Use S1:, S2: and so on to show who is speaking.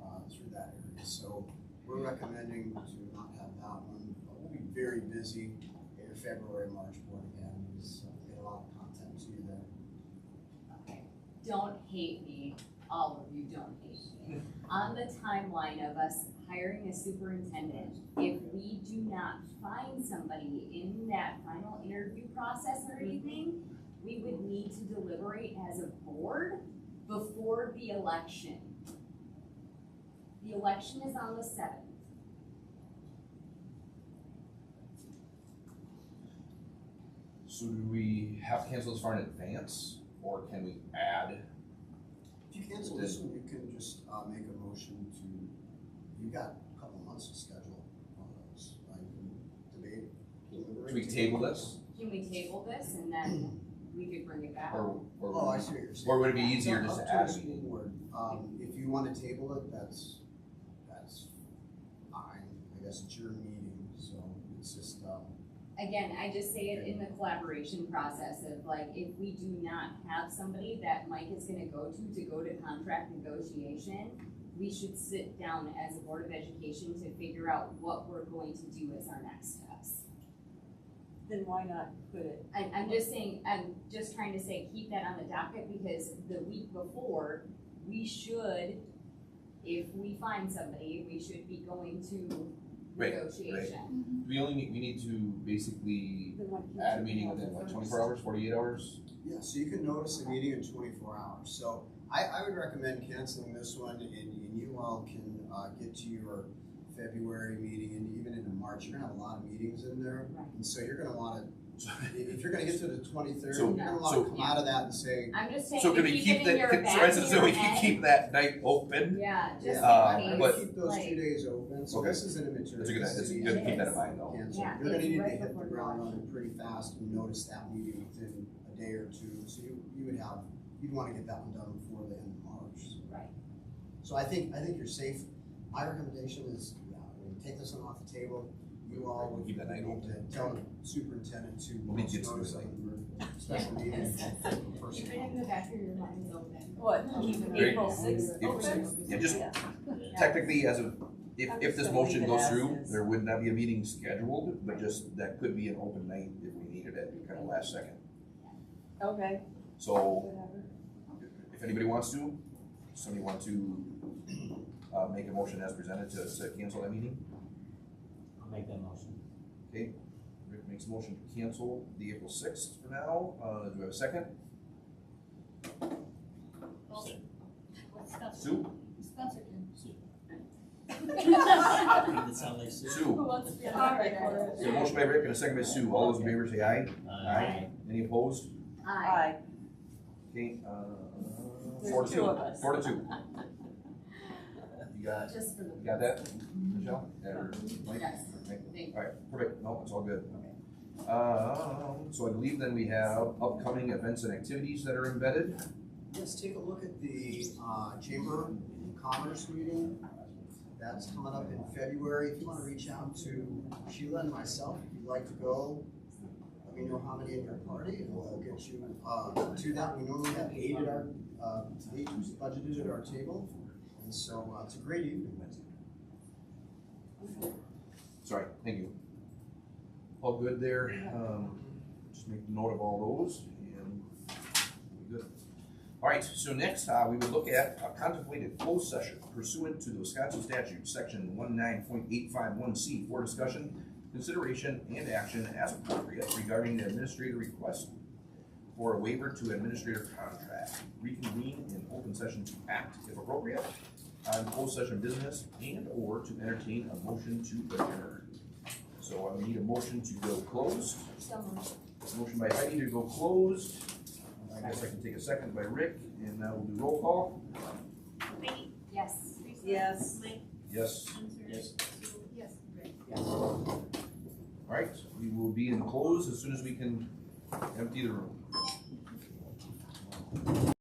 S1: uh, we're recommending to not have that one, but we'll be very busy in February, March board again, so we get a lot of content to you there.
S2: Okay, don't hate me, all of you don't hate me. On the timeline of us hiring a superintendent, if we do not find somebody in that final interview process or anything, we would need to deliberate as a board before the election. The election is on the seventh.
S3: So do we have to cancel this far in advance, or can we add?
S1: If you cancel this one, you can just, uh, make a motion to, you got a couple months to schedule one of those, like, debate. deliberate.
S3: Should we table this,
S2: Can we table this and then we could bring it back?
S3: or,
S1: Oh, I
S3: or,
S1: see what you're saying.
S3: or would it be easier
S1: Up
S3: just
S1: to
S3: to
S1: the
S3: add a
S1: school
S3: meeting?
S1: board. Um, if you wanna table it, that's, that's fine, I guess it's your meeting, so it's just, um,
S2: Again, I just say it in the collaboration process of like, if we do not have somebody that Mike is gonna go to to go to contract negotiation, we should sit down as a Board of Education to figure out what we're going to do as our next steps.
S4: Then why not put it,
S2: I, I'm just saying, I'm just trying to say, keep that on the docket because the week before, we should, if we find somebody, we should be going to
S3: Right, right.
S2: negotiation.
S3: We only need, we need to basically
S4: then why can't you?
S3: add a meeting
S4: have
S3: within
S4: the
S3: like
S4: first?
S3: twenty-four hours, forty-eight hours?
S1: Yeah, so you can notice a meeting in twenty-four hours, so I, I would recommend canceling this one, and, and you all can, uh, get to your February meeting, and even into March, you're gonna have a lot of meetings in there,
S2: Right.
S1: and so you're gonna wanna, if if you're gonna get to the twenty-third,
S3: So-
S1: you're gonna wanna
S3: so-
S1: come out of that and say,
S2: I'm just saying,
S3: So can
S2: to keep
S3: we
S2: it
S3: keep
S2: in
S3: that,
S2: your
S3: can-
S2: back,
S3: so I said, so we
S2: in your
S3: can
S2: head.
S3: keep that night open?
S2: Yeah, just
S1: yeah,
S2: in
S3: Uh,
S1: I
S2: case,
S1: would
S3: but-
S1: keep those two
S2: like,
S1: days open, so
S3: Okay.
S1: this is an immaterial.
S3: That's a good, that's good to keep that in mind though.
S1: Cancel.
S2: Yeah,
S1: You're gonna
S2: it's
S1: need to
S2: right
S1: hit the
S2: before
S1: ground
S2: lunch.
S1: running pretty fast and notice that meeting within a day or two, so you, you would have, you'd wanna get that one done before the end of March, so.
S2: right,
S1: So I think, I think you're safe. My recommendation is, yeah, we take this one off the table. You all would
S3: Keep that night
S1: need
S3: open.
S1: to tell the superintendent to
S3: Let me
S1: post
S3: get to
S1: notice
S3: it.
S1: of the special meetings. first.
S5: Keep it in the back of your mind open.
S4: What,
S3: Great.
S4: April sixth?
S3: April sixth. Yeah, just-
S4: Yeah.
S3: Technically, as of, if,
S4: I'm
S3: if
S4: just
S3: this
S4: gonna leave
S3: motion
S4: it
S3: goes
S4: as
S3: through,
S4: is.
S3: there would not be a meeting scheduled, but just, that could be an open night if we needed it, kind of last second.
S4: Okay,
S3: So
S4: whatever.
S3: if anybody wants to, somebody want to, uh, make a motion as presented to, to cancel that meeting?
S6: I'll make that motion.
S3: Okay, Rick makes a motion to cancel the April sixth for now, uh, do we have a second?
S5: Well, What's Spencer?
S3: Sue,
S5: Spencer can.
S6: Make it sound like soup.
S3: Sue, so motion by Rick and a second by Sue, all those in favor say aye.
S6: Uh, Aye.
S3: Any opposed?
S2: aye.
S4: Aye,
S3: Okay, uh, four
S4: there's
S3: to
S4: two of
S3: two,
S4: us.
S3: four to two. You got,
S2: Just for the.
S3: you got that, Michelle? Yeah, or Mike?
S2: Yes.
S3: Okay.
S2: Thank
S3: Alright, perfect, no, it's all good. Um, so I believe then we have upcoming events and activities that are embedded.
S1: Let's take a look at the uh, Chamber of Commerce meeting. That's coming up in February. If you want to reach out to Sheila and myself, if you'd like to go, let me know how many in your party and we'll get you uh, to that. We normally have eight at our, uh, eight who's budgeted at our table. And so uh, it's a great evening.
S3: Sorry, thank you. All good there, um, just make note of all those and we're good. Alright, so next, uh, we would look at a contemplated closed session pursuant to the Wisconsin statute, section one nine point eight five one C for discussion, consideration and action as appropriate regarding the administrator request for a waiver to administrator contract, reconvene in open session to act if appropriate on closed session business and/or to entertain a motion to adjourn. So I need a motion to go closed. Motion by Heidi to go closed. I guess I can take a second by Rick, and now we'll do roll call.
S5: Wait,
S2: Yes.
S4: yes.
S5: Mike,
S3: Yes,
S5: Spencer.
S6: Yes.
S5: Sue, Yes. Rick.
S3: all right, we will be in close as soon as we can empty the room.